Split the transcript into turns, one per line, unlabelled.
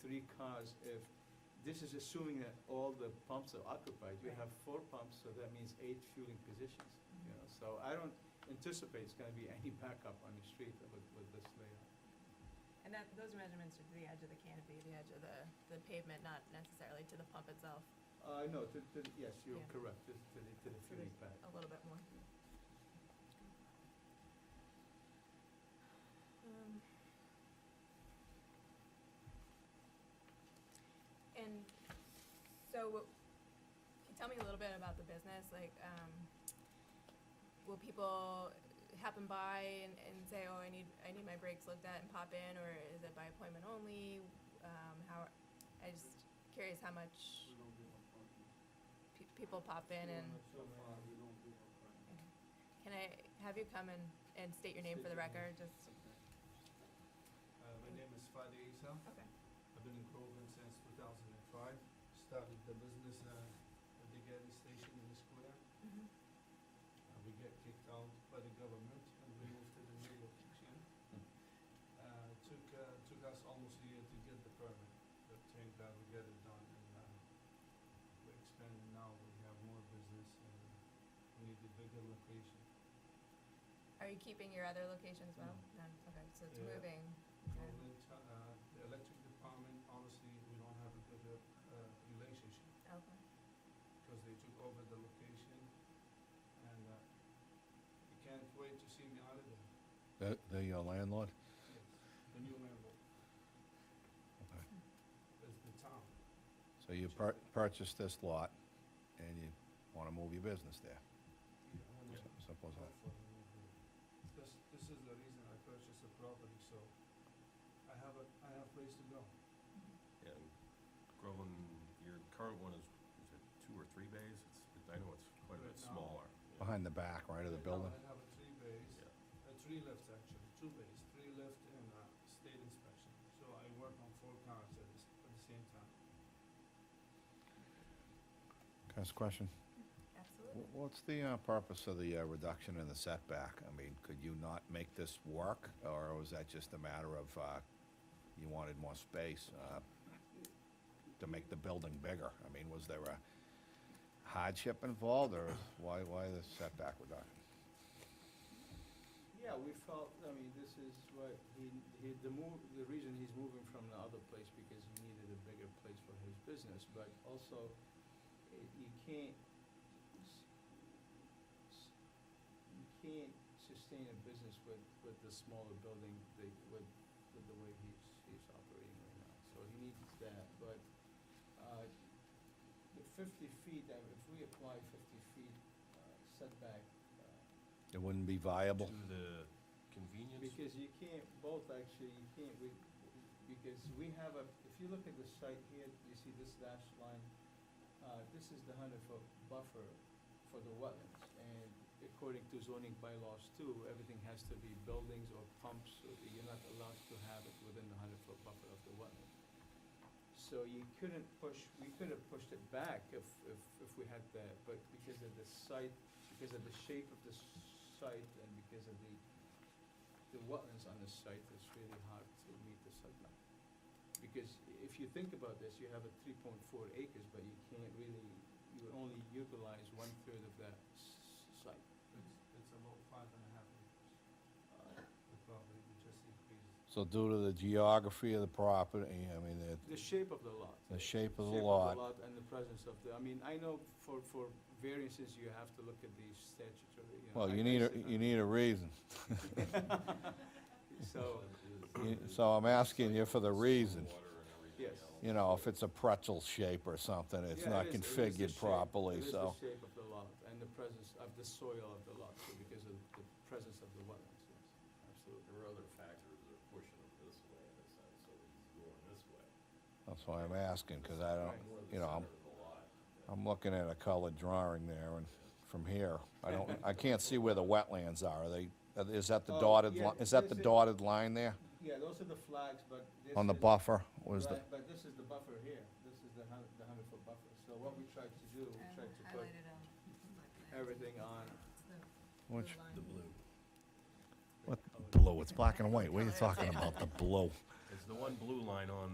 because if, this is assuming that all the pumps are occupied, you have four pumps, so that means eight fueling positions, you know, so I don't anticipate it's gonna be any backup on the street with, with this layout.
And that, those measurements are to the edge of the canopy, the edge of the, the pavement, not necessarily to the pump itself,
Uh, no, to, to, yes, you're
Yeah.
correct, to, to the, to the
So
fueling pad.
a little bit more. Um, And so, what- can you tell me a little bit about the business? Like, um, will people happen by and, and say, "Oh, I need I need my brakes looked at and pop in," or is it by appointment only? Um, how? I just curious how much
We don't do our parking.
pe- people pop in
Well,
and.
that's So far, we don't do our parking.
Can I have you come and, and state your name for the record, just?
Uh, my name is Fadi Isa.
Okay.
I've been in Groveland since two thousand and five. Started the business, uh, at the gas station in the square.
Mm-hmm.
Uh, we get kicked out by the government and we moved to the new location. Uh, took, uh, took us almost a year to get the permit, but thank God we got it done and, uh, we're expanding now, we have more business and we need a bigger location.
Are you keeping your other locations well? None, okay, so it's
Yeah.
moving. Okay.
Groveland, uh, the electric department, honestly, we don't have a good, uh, relationship.
Okay.
because they took over the location, and uh, you can't wait to see me out of there.
The, the uh, landlord?
Yes, the new landlord
Okay.
is the town.
So you pur- purchased this lot and you want to move your business there?
Yeah.
S- Simple as that.
This, this is the reason I purchased the property, so I have a, I have place to go.
Mm-hmm.
And Groveland, your current one is, is it two or three bays? It's, I know it's quite a bit
Right now.
smaller.
Behind the back, right, of the
Right now
building?
I have a three bays,
Yeah.
uh, three lifts actually, two bays, three lift and uh, state inspection. So I work on four cars at the, s- at the same time.
Can I ask a question?
Absolutely.
Wh- What's the uh, purpose of the uh, reduction in the setback? I mean, could you not make this work? Or was that just a matter of uh, you wanted more space uh, to make the building bigger? I mean, was there a hardship involved or why, why the setback reduction?
Yeah, we felt, I mean, this is what, he, he, the move, the reason he's moving from the other place because he needed a bigger place for his business, but also, eh, you can't, s- s- you can't sustain a business with, with the smaller building, the, with, with the way he's, he's operating right now, so he needs that, but, uh, the fifty feet, uh, if we apply fifty feet uh, setback, uh,
It wouldn't be viable?
To the convenience,
because you can't, both actually, you can't, we, because we have a, if you look at the site here, you see this dashed line, uh, this is the hundred foot buffer for the wetlands. And according to zoning bylaws too, everything has to be buildings or pumps, or you're not allowed to have it within the hundred foot buffer of the wetland. So you couldn't push, we could have pushed it back if, if, if we had that, but because of the site, because of the shape of the site and because of the the wetlands on the site, it's really hard to meet the setback. Because if you think about this, you have a three point four acres, but you can't really, you only utilize one-third of that s- site.
It's, it's about five and a half acres. The property, we just increased.
So due to the geography of the property, I mean, it,
The shape of the lot.
The shape of
Shape
the
of
lot.
the lot and the presence of the, I mean, I know for, for variances, you have to look at the statutory, you know.
well,
I-
you
I
need, a
sit on-
you need a reason.
So,
You- So I'm asking you for the reason.
water and everything
Yes.
else.
You know, if it's a pretzel shape or something, it's
Yeah,
not
it is- it is the
configured
shape-
properly,
It
so.
is the shape of the lot and the presence of the soil of the lot, too, because of the presence of the wetlands, yes, absolutely.
There are other factors that are pushing them this way in a sense, so he's going this way.
That's why I'm asking, because I don't,
Right.
More the
you know, I'm,
center of the lot.
I'm looking at a colored drawing there and from here, I don't, I can't see where the wetlands are. Are they, uh, is that the
Oh,
dotted,
yeah,
li- is that the
this is-
dotted line there?
Yeah, those are the flags, but this
On the
is-
buffer, was the,
right, But this is the buffer here, this is the hundred, the hundred foot buffer, so what we tried to do,
Um,
we tried to put everything on.
which,
The blue.
what, blue, it's black and white. What are you
Colour, that's
talking
it.
about, the blue?
It's the one blue line on